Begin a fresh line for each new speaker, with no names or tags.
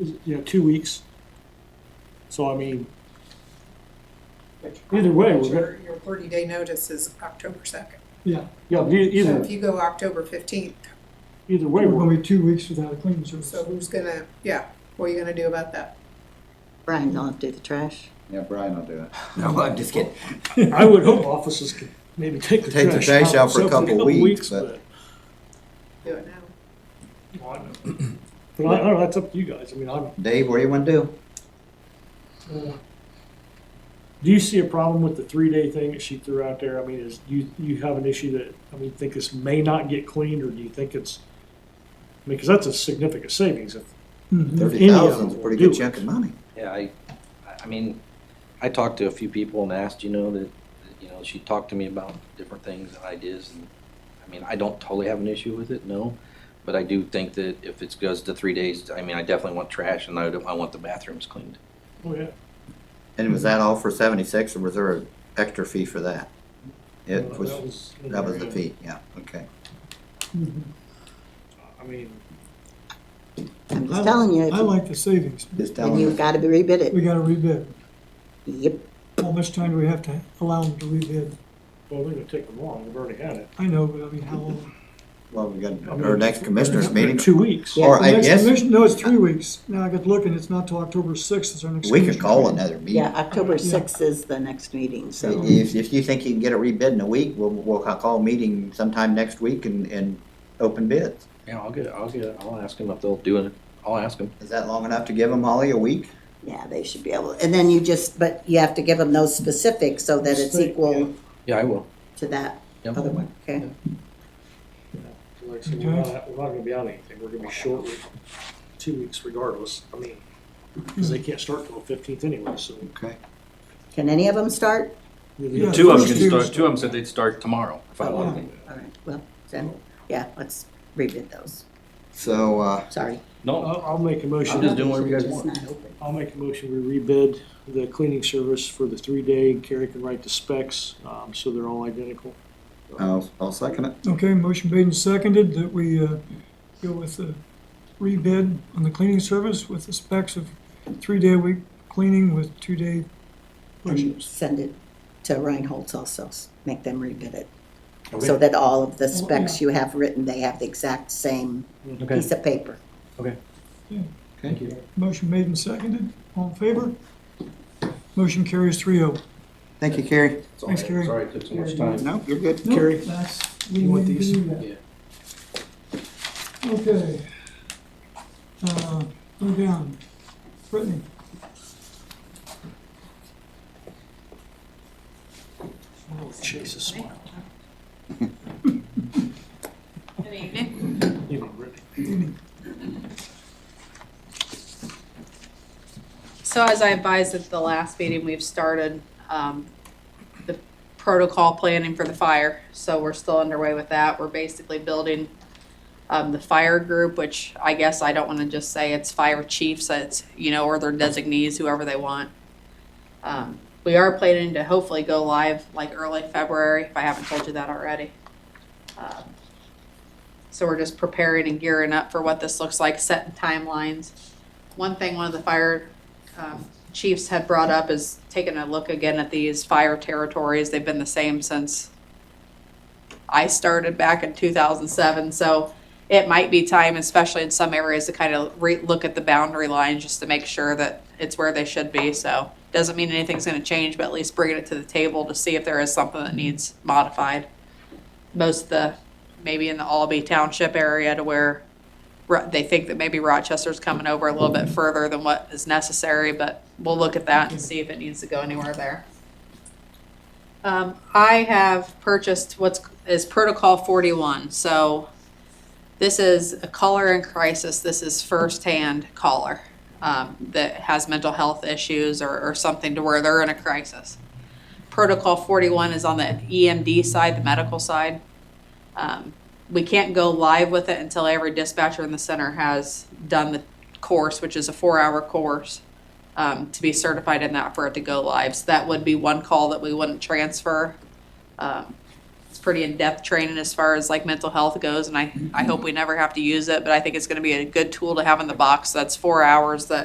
is, you know, two weeks. So I mean, Either way, we're
Your, your thirty day notice is October second.
Yeah,
yeah, e-
So
either,
if you go October fifteenth,
either way,
we're
we're-
gonna be two weeks without a cleaning service.
so who's gonna, yeah, what are you gonna do about that?
Brian, you'll have to do the trash.
Yeah, Brian will do it.
No, I'm just kidding.
I would hope offices could maybe take the
Take the
trash
trash
out
out for a
themselves
couple weeks, but-
Do it now.
but- Well, I know. But I, I don't know, that's up to you guys, I mean, I'm,
Dave, what do you want to do?
uh, do you see a problem with the three-day thing that she threw out there? I mean, is, you, you have an issue that, I mean, think this may not get cleaned, or do you think it's, I mean, because that's a significant savings if
Mhm.
Thirty thousand's a
will
pretty
do
good
it.
chunk of money.
Yeah, I, I mean, I talked to a few people and asked, you know, that, that, you know, she talked to me about different things and ideas. And I mean, I don't totally have an issue with it, no. But I do think that if it goes to three days, I mean, I definitely want trash and I, don't- I want the bathrooms cleaned.
Oh, yeah.
And was that all for seventy-six, or was there an extra fee for that? It
Well,
was,
that was-
that was the fee, yeah, okay.
I mean,
I'm
I-
just telling you,
I
if-
like the savings.
Just tell
and you've
them,
got to rebid
We
it.
gotta rebid.
Yep.
How much time do we have to allow them to rebid?
well, they're gonna take them long, we've already had it.
I know, but I mean, how long?
well, we got
I mean,
our next commissioners meeting,
Two weeks.
Or I
The next
guess-
commission- No, it's three weeks. Now I got looking, it's not till October sixth is our next.
we could
commission.
call another
Yeah,
meeting.
October
Yeah.
6th is the next meeting, so.
If, if you think you can get it rebid in a week, we'll, we'll call a meeting sometime next week and, and open bids.
Yeah, I'll get, I'll get, I'll ask them if they'll do it. I'll ask them.
Is that long enough to give them, Holly, a week?
Yeah, they should be able, and then you just, but you have to give them those specifics so that it's
State,
equal
Yeah, I will.
to that
Yep.
other one, okay?
Like, I said, we're not, we're not gonna be on anything, we're gonna be short with two weeks regardless, I mean, because they can't start till the fifteenth anyway, so.
Okay.
Can any of them start?
Yeah,
Two
Two of 'em can
can
start-
two of them said they'd start tomorrow if
Oh, All right, well, then, yeah, let's rebid those.
So, uh,
Sorry.
No,
I'll, I'll make a motion,
I'm just doing whatever you guys
It's
want.
not open.
I'll make a motion, we rebid the cleaning service for the three-day, Carrie can write the specs, um, so they're all identical.
I'll, I'll second it.
Okay, motion made and seconded that we uh, go with the rebid on the cleaning service with the specs of three-day a week cleaning with two-day
And
washes.
send it to Reinhold's also, s- make them rebid it. So that all of the specs you have written, they have the exact same piece of paper.
Thank you.
Motion made and seconded. All in favor? Motion carries three oh.
Thank you, Carrie.
Sorry,
Thanks, Gary.
Sorry it took so much time.
No, you're good.
Carrie,
That's,
you want
need to
these?
do that. Okay. Uh, Go down. Brittany,
Chase a smile.
Good evening.
You know, Brittany.
So as I advised at the last meeting, we've started um, the protocol planning for the fire. So we're still underway with that. We're basically building um, the fire group, which I guess I don't want to just say it's fire chiefs, it's, you know, or their designees, whoever they want. Um, We are planning to hopefully go live like early February, if I haven't told you that already. Um, So we're just preparing and gearing up for what this looks like, setting timelines. One thing one of the fire um, chiefs had brought up is taking a look again at these fire territories. They've been the same since I started back in 2007. So it might be time, especially in some areas, to kind of re- look at the boundary lines just to make sure that it's where they should be. So doesn't mean anything's going to change, but at least bringing it to the table to see if there is something that needs modified. Most of the maybe in the Albee Township area to where Ro- they think that maybe Rochester's coming over a little bit further than what is necessary, but we'll look at that and see if it needs to go anywhere there. Um, I have purchased what's, is Protocol forty-one, so this is a caller in crisis, this is first-hand caller, um, that has mental health issues or, or something to where they're in a crisis. Protocol forty-one is on the EMD side, the medical side. Um, we can't go live with it until every dispatcher in the center has done the course, which is a four-hour course, um, to be certified in that for it to go live. So that would be one call that we wouldn't transfer. Um, pretty in-depth training as far as like mental health goes, and I, I hope we never have to use it, but I think it's gonna be a good tool to have in the box. That's four hours that